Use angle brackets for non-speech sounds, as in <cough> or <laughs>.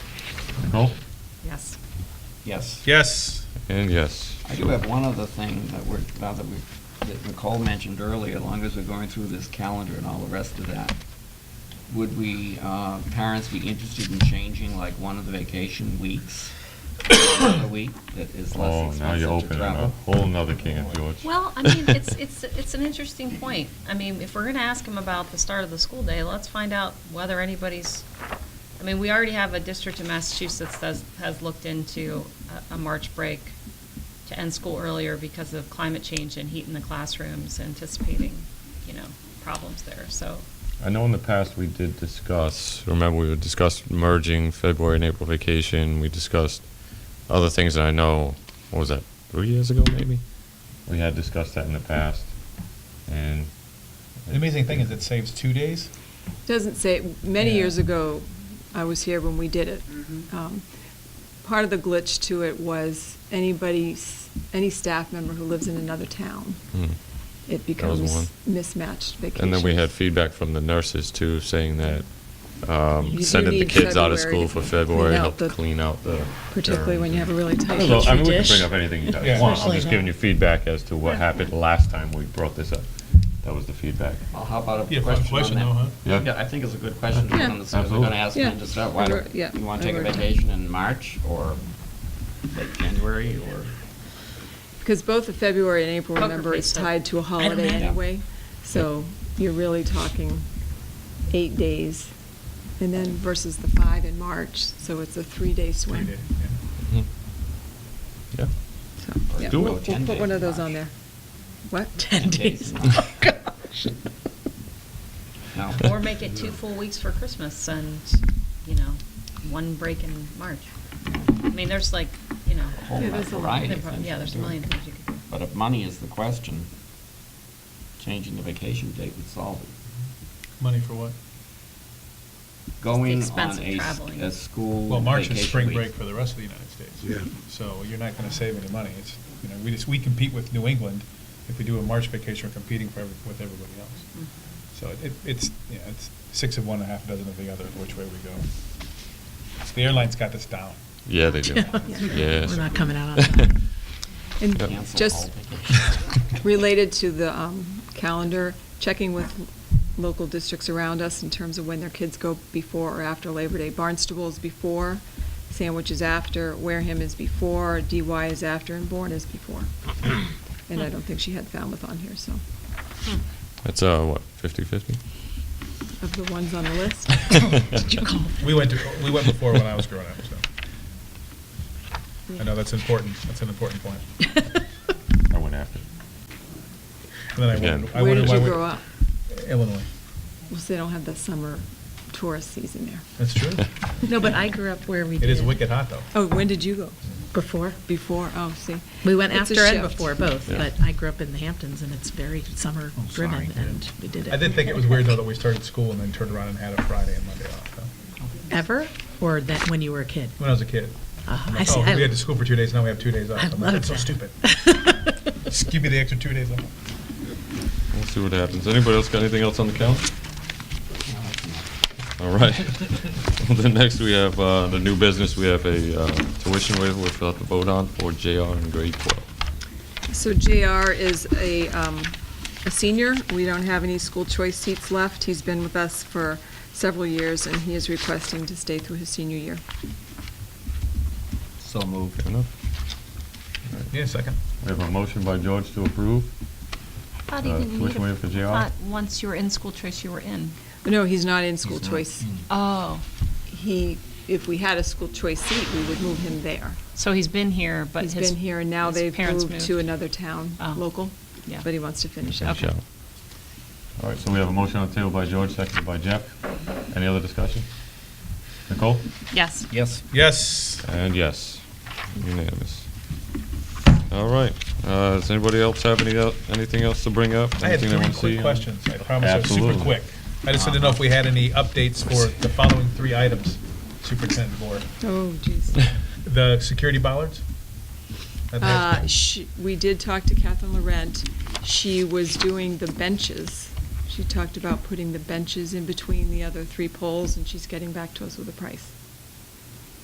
Nope. Yes. Yes. Yes. And yes. I do have one other thing that we're, now that we, that Nicole mentioned earlier, as long as we're going through this calendar and all the rest of that, would we, uh, parents be interested in changing like one of the vacation weeks, <coughs> a week that is less Oh, now you're expensive opening to a travel? whole nother can of George. Well, I mean, <laughs> it's, it's, it's an interesting point. I mean, if we're going to ask them about the start of the school day, let's find out whether anybody's, I mean, we already have a district in Massachusetts that has looked into a, a March break to end school earlier because of climate change and heat in the classrooms, anticipating, you know, problems there, so. I know in the past we did discuss, remember we discussed merging February and April vacation. We discussed other things that I know, what was that, three years ago maybe? We had discussed that in the past. And The amazing thing is it saves two days. Doesn't say, many Yeah. years ago, I was here when we did it. Mm-hmm. Um, Part of the glitch to it was anybody, s- any staff member who lives in another town, Hmm. it That was one. becomes mismatched vacation. And then we had feedback from the nurses too, saying that You um, do sending the need kids out of February school for to February clean out helped the- clean out the. Particularly when you have a really I tight. don't know, I mean, we can dish. bring up anything <laughs> you guys Yeah. want, I'm Especially just giving you now. feedback as to what happened last time we brought this up. That was the feedback. Well, how about Yeah, a fun question question though, huh? on Yeah. that? Yeah, I think it's a good question, Yeah. because we're Absolutely. gonna ask Yeah. them to start, why Over- don't, yeah, you wanna take a over time. vacation in March, or like January, or? Because both the February and April, Poker remember, face is up. tied to a I don't holiday know. anyway. So you're really talking eight days and then versus the five in March, so it's a three-day swing. Three days, yeah. Mm-hmm. Yeah. So, Or yeah, do it we'll- with We'll 10 put one days of in those on March. there. What? 10 days. days. <laughs> Oh, gosh. No. <laughs> Or make it two full weeks for Christmas and, you know, one break in March. I mean, there's like, you know. A whole Yeah, there's a lot. variety of things Yeah, you there's a can do. million things you could do. But if money is the question, changing the vacation date would solve it. Money for what? Going expense on of a, s- traveling. a school Well, March vacation is spring week. break for the rest of the United States. Yeah. So you're not gonna save any money. It's, you know, we just, we compete with New England. If we do a March vacation, we're competing for, every- with everybody Mm-hmm. else. Hmm. So it- it, it's, yeah, it's six of one and a half dozen of the other, which way we go. The airlines got this down. Yeah, they <laughs> <laughs> do. Yes. We're not coming out on time. <laughs> And Cancel <laughs> just all vacations. <laughs> related to the um, calendar, checking with local districts around us in terms of when their kids go before or after Labor Day. Barnstable is before, Sandwich is after, Wareham is before, DY is after, and Bourne <clears throat> is before. And I don't think she had Falmouth on here, so, Hmm. That's, uh, what, fifty-fifty? of the ones on the <laughs> list. Did you call? <laughs> We went to, we went before when I was growing up, so. I know <laughs> that's important. That's an important point. I went after. And then I Again. wondered, I Where wondered did why you we- grow up? Illinois. Well, so they don't have the summer tourist season there. That's true. <laughs> No, but I grew up where we It is did. wicked hot, though. Oh, when did you go? Before. Before, oh, see. We went It's a after and shift. before both, Yeah. but I grew up in the Hamptons and it's very summer Oh, sorry, driven dude. and we did it. I did think it was weird, though, that we started school and then turned around and had a Friday and Monday off, though, Ever? Or that when you were a kid? when I was a kid. Uh, I'm I like, see- oh, I- we had to school for two days, now we have two days off. I I'm like, loved that's so that. stupid. <laughs> Just Give me the extra two days off. We'll see what happens. Anybody else got anything else on the calendar? All right. <laughs> Well, Then next we have, uh, the new business, we have a, uh, tuition waiver we'll have to vote on for JR in grade twelve. So JR is a, um, a senior. We don't have any school choice seats left. He's been with us for several years, and he is requesting to stay through his senior year. So moved. Fair enough. Yeah, second. We have a motion by George to approve. I thought he Uh, didn't tuition need a, waiver for JR? thought once you were in school choice, you were in. No, he's not in school He's not. choice. Oh, He, if we had a school choice seat, we would move him there. so he's been here, but He's his- been here, and now his they've parents moved to another town, Oh. local, Yeah. but he wants to finish up. Okay. Michelle. All right, so we have a motion on the table by George, seconded by Jeff. Any other discussion? Nicole? Yes. Yes. Yes. And yes, unanimous. All right, uh, does anybody else have any, el- anything else to bring up? I had Anything they three wanna see quick on- questions. I promise they're super Absolutely. quick. I just didn't know if we had any updates for the following three items, Superintendent Board. Oh, jeez. The security bollards? I think- Uh, she- We did talk to Catherine Laurent. She was doing the benches. She talked about putting the benches in between the other three poles, and she's getting back to us with a price.